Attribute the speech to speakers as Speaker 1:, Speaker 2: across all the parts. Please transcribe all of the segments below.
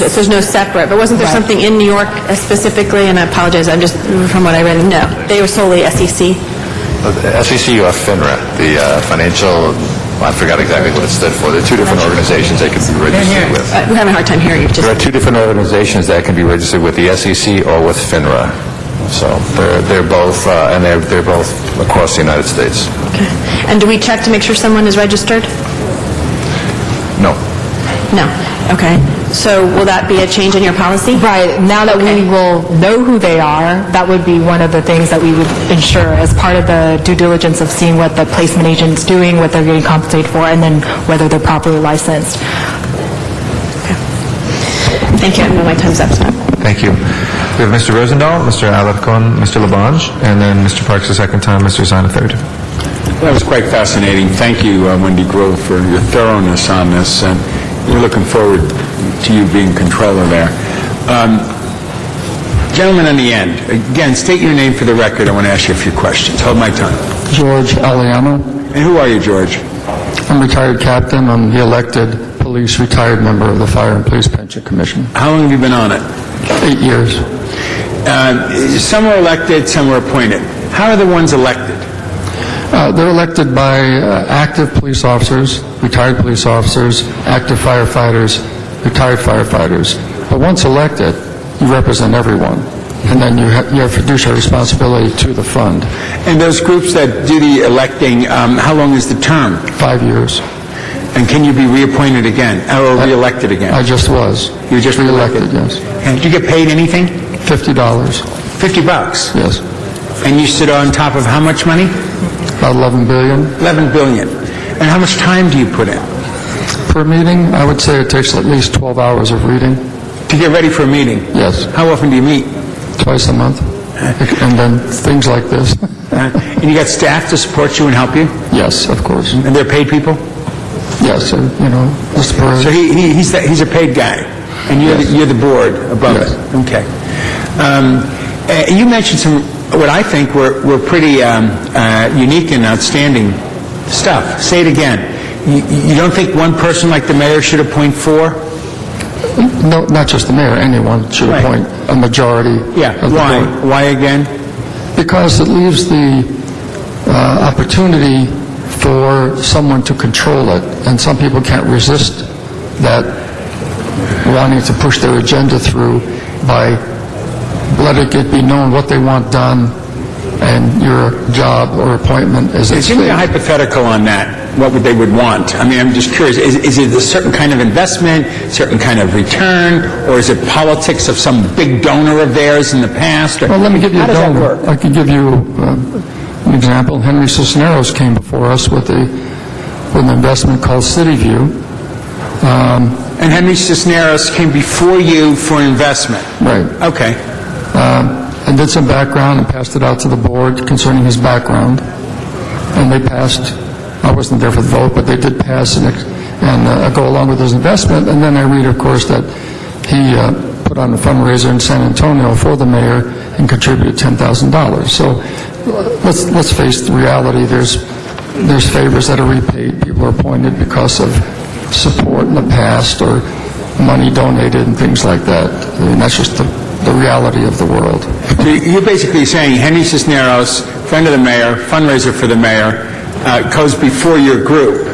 Speaker 1: it, so there's no separate, but wasn't there something in New York specifically, and I apologize, I'm just, from what I read, no, they were solely E SEC?
Speaker 2: SEC or FINRA, the uh, financial, I forgot exactly what it stood for. There are two different organizations they can be registered with.
Speaker 1: Uh, We're having a hard time hearing you, just,
Speaker 2: There are two different organizations that can be registered with the SEC or with FINRA. So they're they're both, uh, and they're they're both across the United States.
Speaker 1: okay. And do we check to make sure someone is registered?
Speaker 2: No.
Speaker 1: No, okay. So will that be a change in your policy?
Speaker 3: Right, now that we will know who they are, that would be one of the things that we would ensure as part of the due diligence of seeing what the placement agent's doing, what they're getting compensated for, and then whether they're properly licensed.
Speaker 1: Thank you, I know my time's up, so.
Speaker 4: Thank you. We have Mr. Rosendahl, Mr. Alarcon, Mr. Labange, and then Mr. Parks a second time, Mr. Zine a third.
Speaker 5: That was quite fascinating. Thank you, uh, Wendy Grove, for your thoroughness on this, and we're looking forward to you being controller there. Um, Gentleman on the end, again, state your name for the record. I want to ask you a few questions. Hold my tongue.
Speaker 6: George Aliano.
Speaker 5: And who are you, George?
Speaker 6: I'm retired captain. I'm the elected police retired member of the Fire and Police Pension Commission.
Speaker 5: How long have you been on it?
Speaker 6: Eight years.
Speaker 5: Uh, Some are elected, some are appointed. How are the ones elected?
Speaker 6: Uh, they're elected by uh, active police officers, retired police officers, active firefighters, retired firefighters. But once elected, you represent everyone, and then you ha- you have fiduciary responsibility to the fund.
Speaker 5: And those groups that do the electing, um, how long is the term?
Speaker 6: Five years.
Speaker 5: And can you be reappointed again, or reelected again?
Speaker 6: I just was.
Speaker 5: You were just
Speaker 6: Re-elected,
Speaker 5: reelected? And did you get paid anything?
Speaker 6: yes. Fifty dollars,
Speaker 5: 50 bucks?
Speaker 6: yes.
Speaker 5: And you sit on top of how much money?
Speaker 6: About eleven billion
Speaker 5: 11 billion. And how much time do you put in
Speaker 6: per meeting. I would say it takes at least twelve hours of reading.
Speaker 5: to get ready for a meeting?
Speaker 6: Yes.
Speaker 5: How often do you meet?
Speaker 6: twice a month, and then things like this.
Speaker 5: Uh, And you got staff to support you and help you?
Speaker 6: Yes, of course.
Speaker 5: And they're paid people?
Speaker 6: Yes, and, you know, Mr.
Speaker 5: So
Speaker 6: Perez.
Speaker 5: he, he- he's, the- he's a paid guy, and you're, the- you're the board above
Speaker 6: Yes.
Speaker 5: it? Okay. Um, uh, You mentioned some, what I think were, were pretty um, uh, unique and outstanding stuff. Say it again. You- You don't think one person like the mayor should appoint four?
Speaker 6: No, not just the mayor, anyone should
Speaker 5: Right.
Speaker 6: appoint a majority
Speaker 5: Yeah,
Speaker 6: of the
Speaker 5: why?
Speaker 6: board.
Speaker 5: Why again?
Speaker 6: Because it leaves the uh, opportunity for someone to control it, and some people can't resist that wanting to push their agenda through by letting it be known what they want done, and your job or appointment is at
Speaker 5: Give me a
Speaker 6: stake.
Speaker 5: hypothetical on that, what would they would want. I mean, I'm just curious, is, is it a certain kind of investment, certain kind of return, or is it politics of some big donor of theirs in the past? or-
Speaker 6: Well, let me give you
Speaker 5: How
Speaker 6: a
Speaker 5: does that
Speaker 6: donor.
Speaker 5: work?
Speaker 6: I can give you um, an example. Henry Cisneros came before us with a, with an investment called CityView. Um,
Speaker 5: And Henry Cisneros came before you for investment?
Speaker 6: Right.
Speaker 5: Okay.
Speaker 6: Um, And did some background and passed it out to the board concerning his background. And they passed, I wasn't there for the vote, but they did pass and ex- and uh, go along with his investment. And then I read, of course, that he uh, put on a fundraiser in San Antonio for the mayor and contributed $10,000. So uh, let's let's face the reality, there's there's favors that are repaid. People are appointed because of support in the past or money donated and things like that. I mean, that's just the the reality of the world.
Speaker 5: So you're basically saying Henry Cisneros, friend of the mayor, fundraiser for the mayor, uh, goes before your group,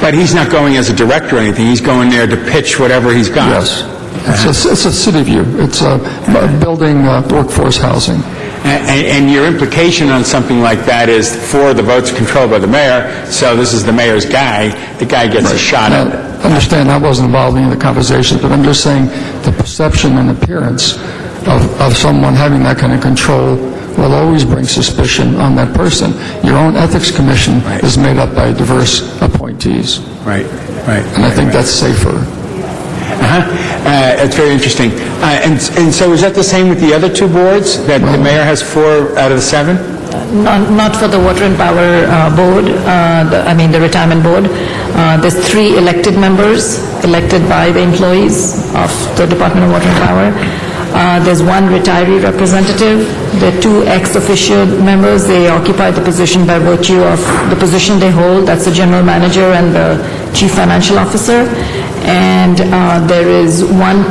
Speaker 5: but he's not going as a director or anything, he's going there to pitch whatever he's got?
Speaker 6: Yes. It's a, it's a city view. It's a a building uh, workforce housing.
Speaker 5: And, and your implication on something like that is, for the vote's controlled by the mayor, so this is the mayor's guy, the guy gets a shot
Speaker 6: Now,
Speaker 5: at it.
Speaker 6: understand, I wasn't involved in any of the conversations, but I'm just saying the perception and appearance of, of someone having that kind of control will always bring suspicion on that person. Your own ethics commission is made up by diverse appointees,
Speaker 5: Right, right.
Speaker 6: and I think that's safer.
Speaker 5: Uh-huh. Uh, That's very interesting. Uh, And, and so is that the same with the other two boards, that the mayor has four out of the seven?
Speaker 7: Not not for the Water and Power uh, Board, uh, the- I mean, the Retirement Board. Uh, There's three elected members, elected by the employees of the Department of Water and Power. Uh, There's one retiree representative, there are two ex-officio members, they occupy the position by virtue of the position they hold, that's the general manager and the chief financial officer. And uh, there is one